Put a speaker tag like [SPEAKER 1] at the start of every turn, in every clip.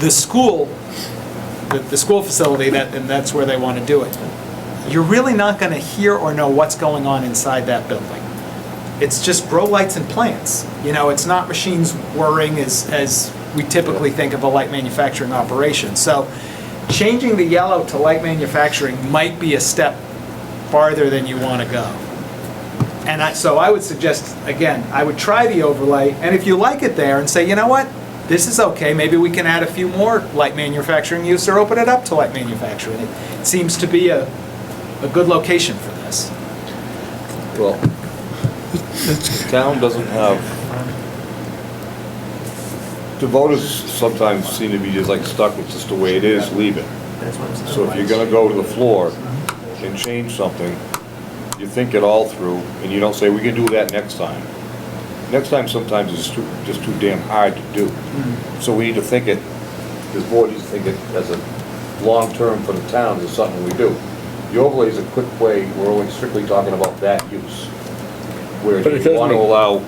[SPEAKER 1] the school, the, the school facility, that, and that's where they want to do it. You're really not going to hear or know what's going on inside that building. It's just grow lights and plants. You know, it's not machines whirring as, as we typically think of a light manufacturing operation. So changing the yellow to light manufacturing might be a step farther than you want to go. And I, so I would suggest, again, I would try the overlay, and if you like it there and say, you know what? This is okay, maybe we can add a few more light manufacturing use or open it up to light manufacturing. It seems to be a, a good location for this.
[SPEAKER 2] Well, the town doesn't have, the voters sometimes seem to be just like stuck with just the way it is, leave it. So if you're gonna go to the floor and change something, you think it all through, and you don't say, we can do that next time. Next time sometimes is too, just too damn hard to do.
[SPEAKER 3] Mm-hmm.
[SPEAKER 2] So we need to think it, this board needs to think it as a long-term for the town, is something we do. The overlay is a quick way, we're only strictly talking about that use. Whereas
[SPEAKER 3] But it
[SPEAKER 2] you
[SPEAKER 3] does
[SPEAKER 2] wanna
[SPEAKER 3] make-
[SPEAKER 2] allow,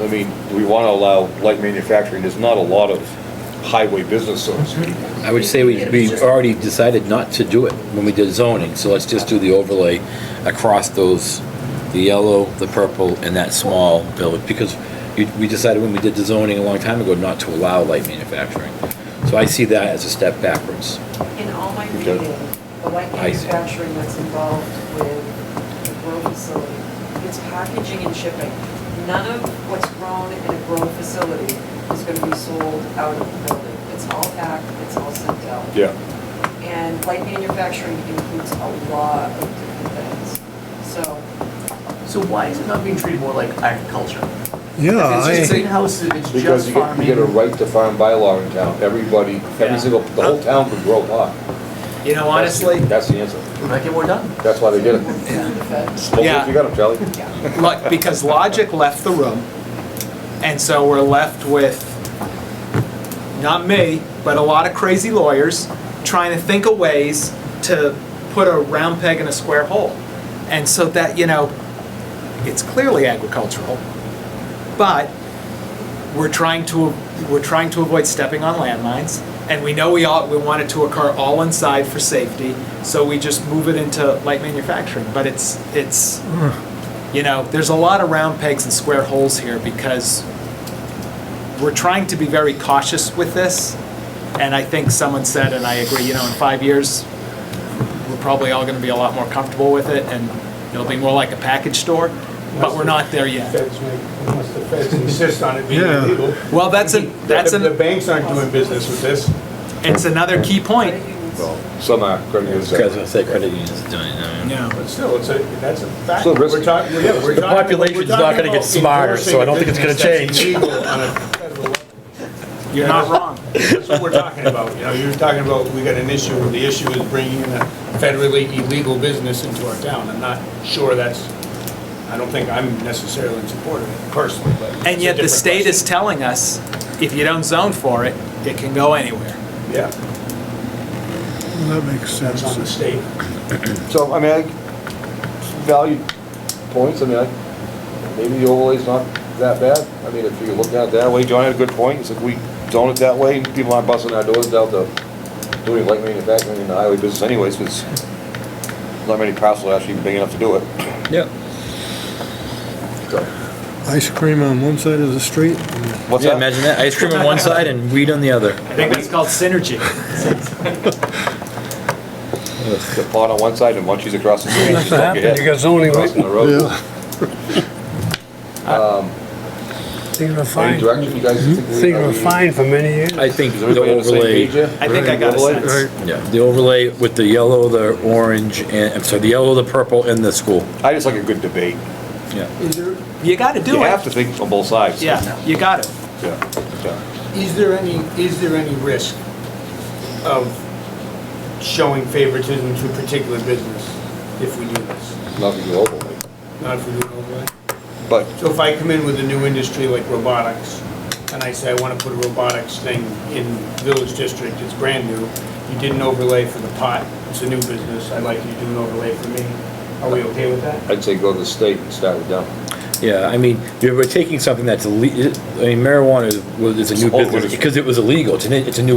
[SPEAKER 2] I mean, we wanna allow light manufacturing, there's not a lot of highway business, so to speak.
[SPEAKER 3] I would say we, we already decided not to do it when we did zoning, so let's just do the overlay across those, the yellow, the purple, and that small village, because you, we decided when we did the zoning a long time ago not to allow light manufacturing. So I see that as a step backwards.
[SPEAKER 4] In all my
[SPEAKER 2] Okay.
[SPEAKER 4] reading, the light
[SPEAKER 3] I see.
[SPEAKER 4] manufacturing that's involved with the grow facility, it's packaging and shipping. None of what's grown in a grow facility is going to be sold out of the building. It's all packed, it's all sent out.
[SPEAKER 2] Yeah,
[SPEAKER 4] And light manufacturing includes a lot of different things. So
[SPEAKER 5] So why is it not being treated more like agriculture?
[SPEAKER 6] Yeah,
[SPEAKER 5] If it's just
[SPEAKER 6] I,
[SPEAKER 5] greenhouses, if it's
[SPEAKER 2] because
[SPEAKER 5] just
[SPEAKER 2] you get, you get a
[SPEAKER 5] farming.
[SPEAKER 2] right to farm bylaw in town, everybody,
[SPEAKER 1] Yeah.
[SPEAKER 2] every single, the whole town could grow pot.
[SPEAKER 1] You know, honestly,
[SPEAKER 2] That's the answer,
[SPEAKER 5] We might get more done.
[SPEAKER 2] that's why they did it.
[SPEAKER 5] Yeah.
[SPEAKER 2] Well,
[SPEAKER 1] Yeah.
[SPEAKER 2] You got 'em, Charlie?
[SPEAKER 1] lo- because logic left the room, and so we're left with, not me, but a lot of crazy lawyers trying to think of ways to put a round peg in a square hole. And so that, you know, it's clearly agricultural, but we're trying to, we're trying to avoid stepping on landmines. And we know we all, we want it to occur all inside for safety, so we just move it into light manufacturing. But it's, it's, you know, there's a lot of round pegs and square holes here because we're trying to be very cautious with this. And I think someone said, and I agree, you know, in five years, we're probably all gonna be a lot more comfortable with it and it'll be more like a package store, but we're not there yet.
[SPEAKER 7] Feds make, unless the feds insist on it being
[SPEAKER 6] Yeah.
[SPEAKER 7] illegal.
[SPEAKER 1] Well, that's a, that's
[SPEAKER 7] The the
[SPEAKER 1] an,
[SPEAKER 7] banks aren't doing business with this.
[SPEAKER 1] it's another key
[SPEAKER 4] credit
[SPEAKER 1] point.
[SPEAKER 4] unions,
[SPEAKER 2] Well, Some are, uh, credit unions.
[SPEAKER 3] Because I
[SPEAKER 2] are.
[SPEAKER 3] said credit unions doing it. I mean.
[SPEAKER 1] Yeah.
[SPEAKER 7] But still, it's a, that's a fact.
[SPEAKER 2] Still risky.
[SPEAKER 7] We're talking- yeah, we're
[SPEAKER 8] The
[SPEAKER 7] talking- we're
[SPEAKER 8] population's
[SPEAKER 7] talking
[SPEAKER 8] not gonna get
[SPEAKER 7] about
[SPEAKER 8] smarter, so I don't think it's gonna
[SPEAKER 7] enforcing a
[SPEAKER 8] change.
[SPEAKER 7] business that's illegal on a federal level.
[SPEAKER 1] You're not wrong.
[SPEAKER 7] That's what we're talking about, you know, you're talking about, we got an issue, where the issue is bringing in a federally illegal business into our town. I'm not sure that's, I don't think I'm necessarily in support of it personally, but. it's
[SPEAKER 1] And
[SPEAKER 7] a
[SPEAKER 1] yet the
[SPEAKER 7] different
[SPEAKER 1] state is
[SPEAKER 7] question.
[SPEAKER 1] telling us, if you don't zone for it, it can go anywhere.
[SPEAKER 7] Yeah,
[SPEAKER 6] that makes
[SPEAKER 7] that's on the
[SPEAKER 6] sense.
[SPEAKER 7] state.
[SPEAKER 2] So, I mean, I, value points, I mean, I, maybe the overlay's not that bad. I mean, if you look at it that way, John had a good point, it's like we zone it that way, people aren't busting our doors out to doing light manufacturing in the highway business anyways, because not many parcels are actually big enough to do it.
[SPEAKER 3] Yeah.
[SPEAKER 2] So,
[SPEAKER 6] Ice cream on one side of the street,
[SPEAKER 2] What's
[SPEAKER 3] Yeah,
[SPEAKER 2] that?
[SPEAKER 3] imagine that, ice cream on one side and weed on the other.
[SPEAKER 1] I think it's called synergy.
[SPEAKER 2] The pot on one side and munchies across the street. Just don't get hit.
[SPEAKER 8] You got zoning, right?
[SPEAKER 2] Crossing the road.
[SPEAKER 6] Yeah.
[SPEAKER 8] They're gonna
[SPEAKER 2] Any
[SPEAKER 8] find,
[SPEAKER 2] direction you guys think? we-
[SPEAKER 8] they're
[SPEAKER 2] are
[SPEAKER 8] gonna
[SPEAKER 2] we-
[SPEAKER 8] find for many years.
[SPEAKER 3] I think
[SPEAKER 2] Is
[SPEAKER 3] the
[SPEAKER 2] everybody on the same page
[SPEAKER 3] overlay,
[SPEAKER 2] here?
[SPEAKER 1] I think I got a
[SPEAKER 2] Overlay?
[SPEAKER 1] sense.
[SPEAKER 3] yeah, the overlay with the yellow, the orange, and, I'm sorry, the yellow, the purple, and the school.
[SPEAKER 2] I just like a good debate.
[SPEAKER 3] Yeah.
[SPEAKER 5] Is there,
[SPEAKER 1] You gotta do
[SPEAKER 2] You have
[SPEAKER 1] it.
[SPEAKER 2] to think on both sides.
[SPEAKER 1] Yeah, you got it.
[SPEAKER 2] Yeah, yeah.
[SPEAKER 7] Is there any, is there any risk of showing favoritism to a particular business if we do this?
[SPEAKER 2] Nothing global, like,
[SPEAKER 7] Not if we do it all the way?
[SPEAKER 2] but
[SPEAKER 7] So if I come in with a new industry like robotics, and I say I want to put a robotics thing in Village District, it's brand new, you did an overlay for the pot, it's a new business, I'd like you to do an overlay for me, are we okay with that?
[SPEAKER 2] I'd say go to the state and start with them.
[SPEAKER 3] Yeah, I mean, we we're taking something that's, ille- I mean, marijuana is- was, is a new
[SPEAKER 2] It's all
[SPEAKER 3] business,
[SPEAKER 2] business.
[SPEAKER 3] because it was illegal, it's a, it's a new